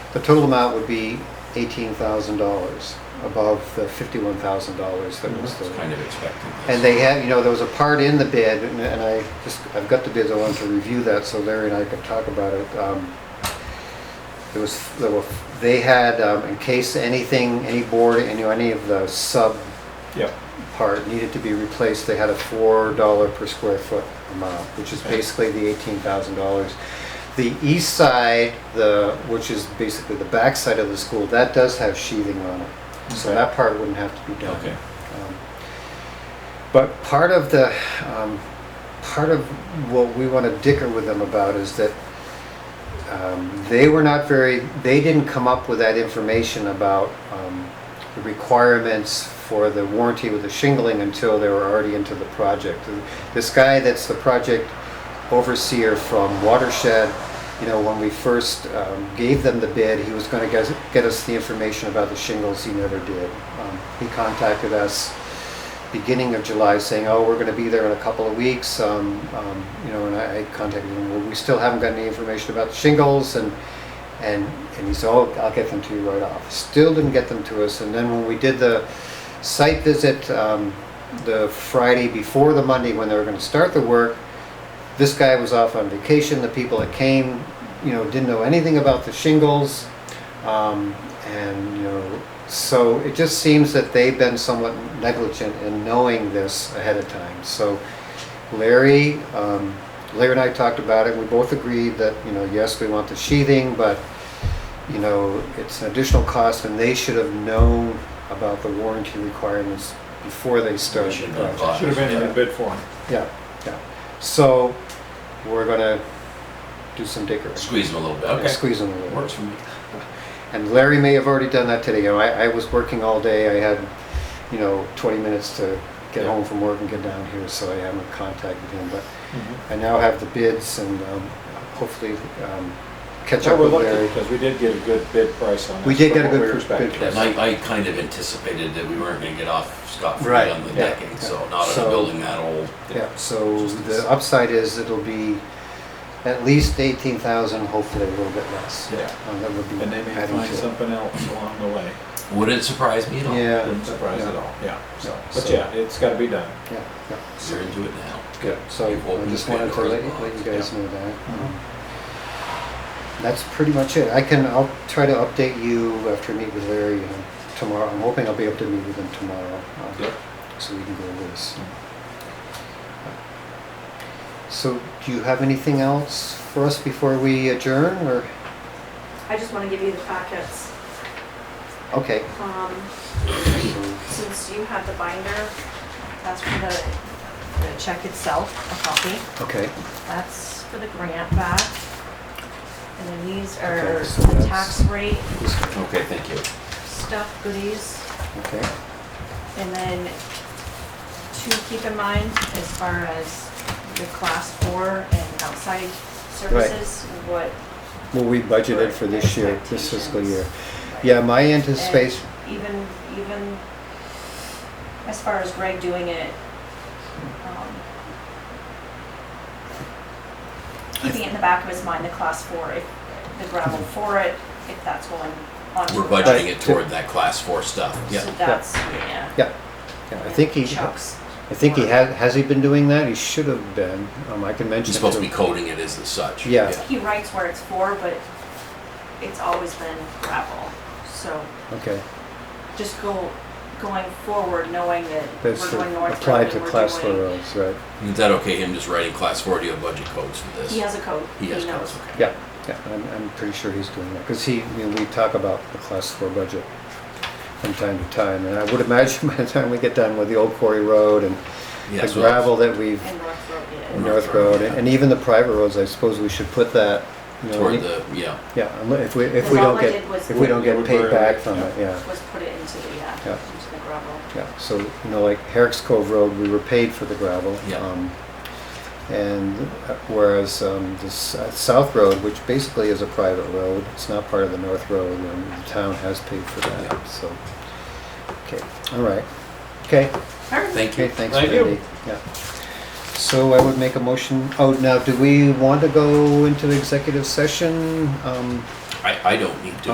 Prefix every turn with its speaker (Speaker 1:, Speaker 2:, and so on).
Speaker 1: The total amount would be eighteen thousand dollars above the fifty-one thousand dollars that was
Speaker 2: It's
Speaker 1: the.
Speaker 2: kind of expected.
Speaker 1: And they had, you know, there was a part in the bid, and- and I just, I've got the bids, I wanted to review that so Larry and I could talk about it. Um, There was, there were, they had, um, in case anything, any board, any, any of the sub
Speaker 2: Yep.
Speaker 1: part needed to be replaced, they had a four dollar per square foot amount, which is
Speaker 2: Okay.
Speaker 1: basically the eighteen thousand dollars. The east side, the, which is basically the back side of the school, that does have sheathing on it. So
Speaker 2: Okay.
Speaker 1: that part wouldn't have to be done.
Speaker 2: Okay.
Speaker 1: Um, But part of the, um, part of what we want to dicker with them about is that um, they were not very, they didn't come up with that information about um, the requirements for the warranty with the shingling until they were already into the project. And This guy that's the project overseer from Watershed, you know, when we first um, gave them the bid, he was going to get get us the information about the shingles, he never did. Um, He contacted us beginning of July saying, oh, we're gonna be there in a couple of weeks, um, um, you know, and I I contacted him, well, we still haven't got any information about the shingles, and, and, and he said, oh, I'll get them to you right off. Still didn't get them to us, and then when we did the site visit, um, the Friday before the Monday when they were gonna start the work, this guy was off on vacation, the people that came, you know, didn't know anything about the shingles, um, and, you know, so it just seems that they've been somewhat negligent in knowing this ahead of time. So Larry, um, Larry and I talked about it, we both agreed that, you know, yes, we want the sheathing, but, you know, it's an additional cost, and they should have known about the warranty requirements before they started the
Speaker 2: should have
Speaker 1: project.
Speaker 2: advised.
Speaker 3: Should have been in the bid form.
Speaker 1: Yeah, yeah. So we're gonna do some digging.
Speaker 2: Squeeze them a little bit. Okay.
Speaker 1: Squeeze them a little.
Speaker 2: Works for me.
Speaker 1: And Larry may have already done that today. You know, I, I was working all day. I had, you know, 20 minutes to get
Speaker 2: Yeah.
Speaker 1: home from work and get down here, so I haven't contacted him. But I now have the bids and um, hopefully um, catch
Speaker 3: So
Speaker 1: up
Speaker 3: we're
Speaker 1: with
Speaker 3: lucky
Speaker 1: Larry.
Speaker 3: because we did get a good bid price on this.
Speaker 1: We did
Speaker 3: from
Speaker 1: get a
Speaker 3: what
Speaker 1: good
Speaker 3: we
Speaker 1: pr-
Speaker 3: expected.
Speaker 1: bid price.
Speaker 2: Yeah, I, I kind of anticipated that we weren't gonna get off scot-free
Speaker 1: Right,
Speaker 2: on the
Speaker 1: yeah,
Speaker 2: decking,
Speaker 1: yeah.
Speaker 2: so not on
Speaker 1: So-
Speaker 2: a building that old.
Speaker 1: Yeah, so
Speaker 2: Just
Speaker 1: the upside is it'll be at least 18,000, hopefully a little bit less.
Speaker 3: Yeah.
Speaker 1: Um, that would be
Speaker 3: And they may
Speaker 1: adding to
Speaker 3: find
Speaker 1: it.
Speaker 3: something else along the way.
Speaker 2: Would it surprise me at all?
Speaker 1: Yeah.
Speaker 3: Wouldn't surprise at all, yeah.
Speaker 1: So-
Speaker 3: But
Speaker 1: so-
Speaker 3: yeah, it's gotta be done.
Speaker 1: Yeah, yeah.
Speaker 2: You're into it now.
Speaker 1: Good, so
Speaker 2: You've
Speaker 1: I
Speaker 2: opened
Speaker 1: just
Speaker 2: the
Speaker 1: wanted to
Speaker 2: Pandora's
Speaker 1: let, let you
Speaker 2: box,
Speaker 1: guys
Speaker 2: yeah. Mm-hmm.
Speaker 1: know that. That's pretty much it. I can, I'll try to update you after I meet with Larry you know, tomorrow. I'm hoping I'll be able to meet with him tomorrow. um,
Speaker 2: Yep.
Speaker 1: So we can go over this.
Speaker 2: Mm.
Speaker 1: So do you have anything else for us before we adjourn or,
Speaker 4: I just want to give you the packets.
Speaker 1: okay.
Speaker 4: Um,
Speaker 1: so-
Speaker 4: Since you have the binder, that's for the, the check itself, a copy.
Speaker 1: Okay,
Speaker 4: That's for the grant back. And then these are
Speaker 1: Okay, so
Speaker 4: the
Speaker 1: that's-
Speaker 4: tax rate
Speaker 1: this one,
Speaker 2: Okay, thank you.
Speaker 4: stuff, goodies.
Speaker 1: okay,
Speaker 4: And then two, keep in mind, as far as the class four and outside services, what.
Speaker 1: well, we budgeted for this year, this fiscal year. Yeah, my anticipation,
Speaker 4: And Even, even as far as Greg doing it, um, keeping it in the back of his mind, the class four, if the gravel for it, if that's going on.
Speaker 2: We're
Speaker 1: Right.
Speaker 2: budgeting it toward that class four stuff.
Speaker 4: So
Speaker 2: Yeah.
Speaker 4: that's, yeah.
Speaker 1: yeah, yeah, I think he,
Speaker 4: Chuck's.
Speaker 1: I think he has, has he been doing that? He should have been. Um, I can mention.
Speaker 2: He's
Speaker 1: it
Speaker 2: supposed to be
Speaker 1: him.
Speaker 2: coding it as the such.
Speaker 1: Yeah.
Speaker 4: He writes where it's for, but it's always been gravel, so.
Speaker 1: Okay,
Speaker 4: just go, going forward, knowing that
Speaker 1: that's
Speaker 4: we're
Speaker 1: for,
Speaker 4: going north.
Speaker 1: applied
Speaker 4: road
Speaker 1: to
Speaker 4: and we're
Speaker 1: class four
Speaker 4: doing-
Speaker 1: roads, right?
Speaker 2: Is that okay, him just writing class four, do you have budget codes for this?
Speaker 4: He has a code.
Speaker 2: He has
Speaker 4: knows.
Speaker 2: codes, okay.
Speaker 1: Yeah, yeah, I'm, I'm pretty sure he's doing that, because he, I mean, we talk about the class four budget from time to time, and I would imagine by the time we get done with the old quarry road and
Speaker 2: Yeah,
Speaker 1: the
Speaker 2: so-
Speaker 1: gravel that we've,
Speaker 4: And North Road,
Speaker 1: and
Speaker 4: yeah.
Speaker 1: North Road, and and even the private roads, I suppose we should put that, you know,
Speaker 2: Toward
Speaker 1: any-
Speaker 2: the, yeah.
Speaker 1: Yeah, unle- if we, if
Speaker 4: Because
Speaker 1: we
Speaker 4: all
Speaker 1: don't
Speaker 4: I
Speaker 1: get,
Speaker 4: did was-
Speaker 1: if we don't get
Speaker 3: We
Speaker 1: paid
Speaker 3: were-
Speaker 1: back from it,
Speaker 3: yeah.
Speaker 1: yeah.
Speaker 4: Was put it into the, uh,
Speaker 1: Yeah.
Speaker 4: into the gravel.
Speaker 1: Yeah, so, you know, like Herrick's Cove Road, we were paid for the gravel.
Speaker 2: Yeah.
Speaker 1: um, And uh, whereas um, the S- uh, South Road, which basically is a private road, it's not part of the North Road, and the town has paid for
Speaker 2: Yeah.
Speaker 1: that, so. Okay, all right. Okay,
Speaker 4: Alright.
Speaker 2: Thank
Speaker 1: okay,
Speaker 2: you.
Speaker 1: thanks,
Speaker 3: Thank
Speaker 1: Brandy.
Speaker 3: you.
Speaker 1: Yeah. So I would make a motion, oh, now, do we want to go into executive session? Um,
Speaker 2: I, I don't need to.